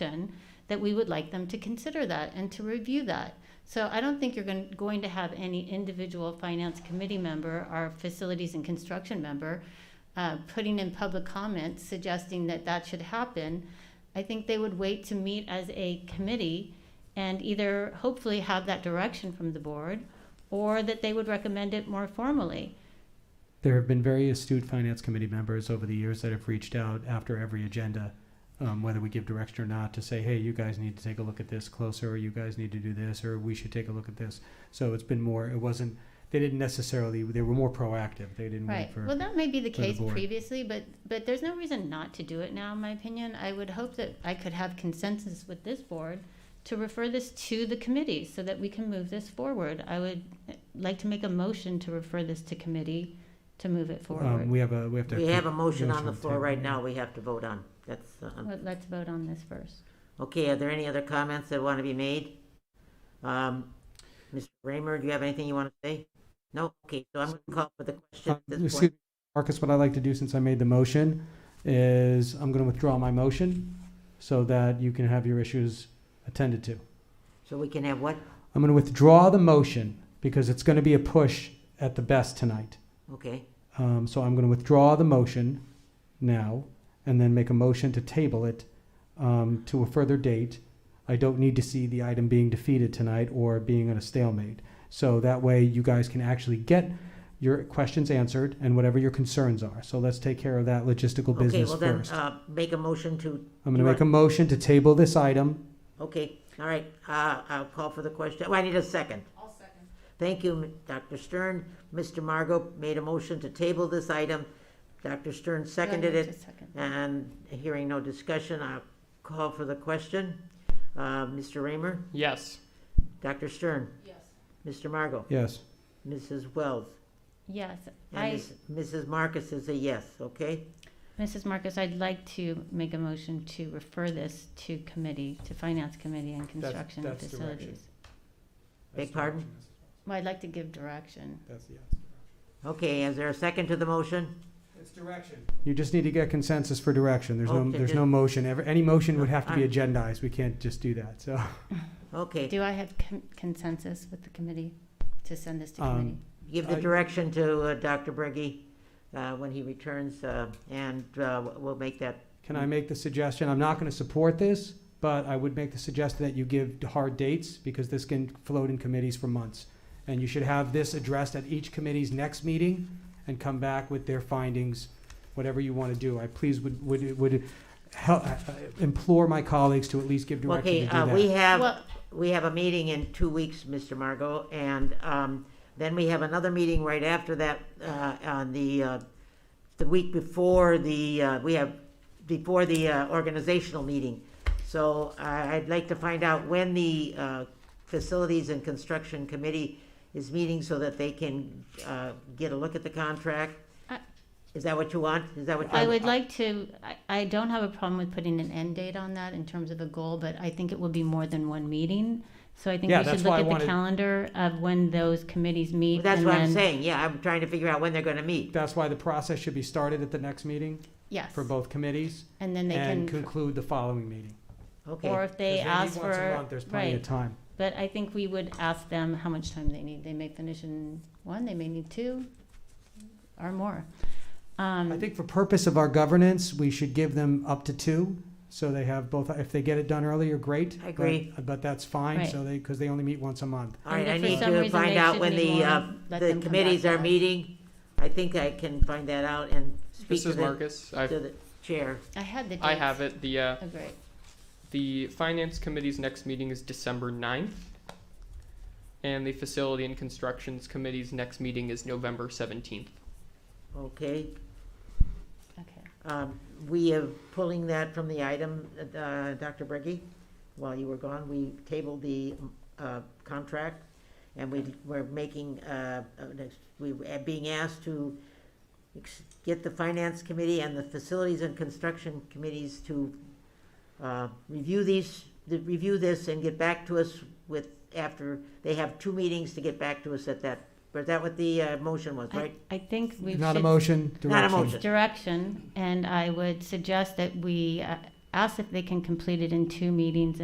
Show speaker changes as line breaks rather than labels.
option, that we would like them to consider that and to review that. So I don't think you're going, going to have any individual finance committee member or facilities and construction member uh, putting in public comments suggesting that that should happen. I think they would wait to meet as a committee and either hopefully have that direction from the board or that they would recommend it more formally.
There have been very astute finance committee members over the years that have reached out after every agenda, um, whether we give direction or not, to say, hey, you guys need to take a look at this closer, or you guys need to do this, or we should take a look at this. So it's been more, it wasn't, they didn't necessarily, they were more proactive. They didn't
Right.
wait for.
Well, that may be the
for the
case
board.
previously, but, but there's no reason not to do it now, in my opinion. I would hope that I could have consensus with this board to refer this to the committee so that we can move this forward. I would eh, like to make a motion to refer this to committee to move it
um,
forward.
we have a, we have to.
We have a motion
goes
on the
from
floor
table.
right now we have to vote on. That's, uh,
Let- Let's vote on this first.
okay, are there any other comments that want to be made? Um, Mr. Raymer, do you have anything you want to say? No? Okay, so I'm going to call for the question
Uh,
at this
Excuse
point.
me, Marcus, what I'd like to do since I made the motion is I'm going to withdraw my motion so that you can have your issues attended to.
So we can have what?
I'm going to withdraw the motion because it's going to be a push at the best tonight.
Okay,
Um, so I'm going to withdraw the motion now and then make a motion to table it um, to a further date. I don't need to see the item being defeated tonight or being at a stalemate. So that way you guys can actually get your questions answered and whatever your concerns are. So let's take care of that logistical
okay,
business
well then,
first.
uh, make a motion to,
I'm going
do
to
I-
make a motion to table this item.
okay, all right, uh, I'll call for the question. Oh, I need a second. I'll second. Thank you, M- Dr. Stern. Mr. Margot made a motion to table this item. Dr. Stern seconded
Just
it.
a second.
And hearing no discussion, I'll call for the question. Uh, Mr. Raymer?
Yes.
Dr. Stern? Yes. Mr. Margot?
Yes.
Mrs. Wells?
Yes,
And
I,
Ms- Mrs. Marcus is a yes, okay?
Mrs. Marcus, I'd like to make a motion to refer this to committee, to finance committee and construction and
that's direction.
facilities.
Beg pardon?
Well, I'd like to give direction.
That's the yes.
Okay, is there a second to the motion?
It's direction. You just need to get consensus for direction. There's no,
Okay,
there's
good.
no motion. Ever, any motion would have to be
Alright.
agendized. We can't just do that, so.
Okay,
Do I have con- consensus with the committee to send this to
Um,
committee?
give the
I-
direction to uh, Dr. Briggy uh, when he returns, uh, and uh, we'll make that,
Can I make the suggestion? I'm not gonna support this, but I would make the suggestion that you give hard dates, because this can float in committees for months. And you should have this addressed at each committee's next meeting and come back with their findings, whatever you wanna do. I please would, would, would hel- implore my colleagues to at least give
Okay,
direction
uh,
to
we
do that.
have,
Well-
we have a meeting in two weeks, Mr. Margot, and um, then we have another meeting right after that, uh, on the, uh, the week before the, uh, we have, before the uh, organizational meeting. So I- I'd like to find out when the uh, Facilities and Construction Committee is meeting so that they can uh, get a look at the contract.
I-
Is that what you want? Is that what you
Uh, I
want?
would like to, I, I don't have a problem with putting an end date on that in terms of a goal, but I think it will be more than one meeting. So I think
Yeah,
we should
that's
look
why I
at the
wanted-
calendar of when those committees meet.
That's
and
what I'm
then-
saying, yeah, I'm trying to figure out when they're gonna meet.
That's why the process should be started at the next meeting
Yes,
for both committees
and then they
and
can,
conclude the following meeting.
or
Okay,
if they
'Cause meet
ask
once a
for,
month, There's plenty of
right.
time.
But I think we would ask them how much time they need. They may finish in one, they may need two or more.
I
Um,
think for purpose of our governance, we should give them up to two, so they have both, if they get it done earlier, great.
I agree.
But- But that's fine,
Right.
so they, because they only meet once a month.
all right,
And
I
if for
need
some
to
reason
find
they
out
should
when
need
the,
more,
uh,
let
the
them come
committees
back
are
to us.
meeting. I think I can find that out and speak
This
to
is
the,
Marcus. I
to the chair.
I had the dates.
I have it. The uh,
Oh, great.
the finance committee's next meeting is December 9th. And the facility and constructions committee's next meeting is November 17th.
Okay,
Okay.
um, we are pulling that from the item, uh, Dr. Breggy, while you were gone, we tabled the, uh, contract, and we, we're making, uh, uh, next- we were being asked to ex- get the Finance Committee and the Facilities and Construction Committees to, uh, review these, the- review this and get back to us with, after, they have two meetings to get back to us at that, was that what the, uh, motion was,
I,
right?
I think we should.
Not a motion,
Not a
direction.
motion.
direction, and I would suggest that we uh, asked if they can complete it in two meetings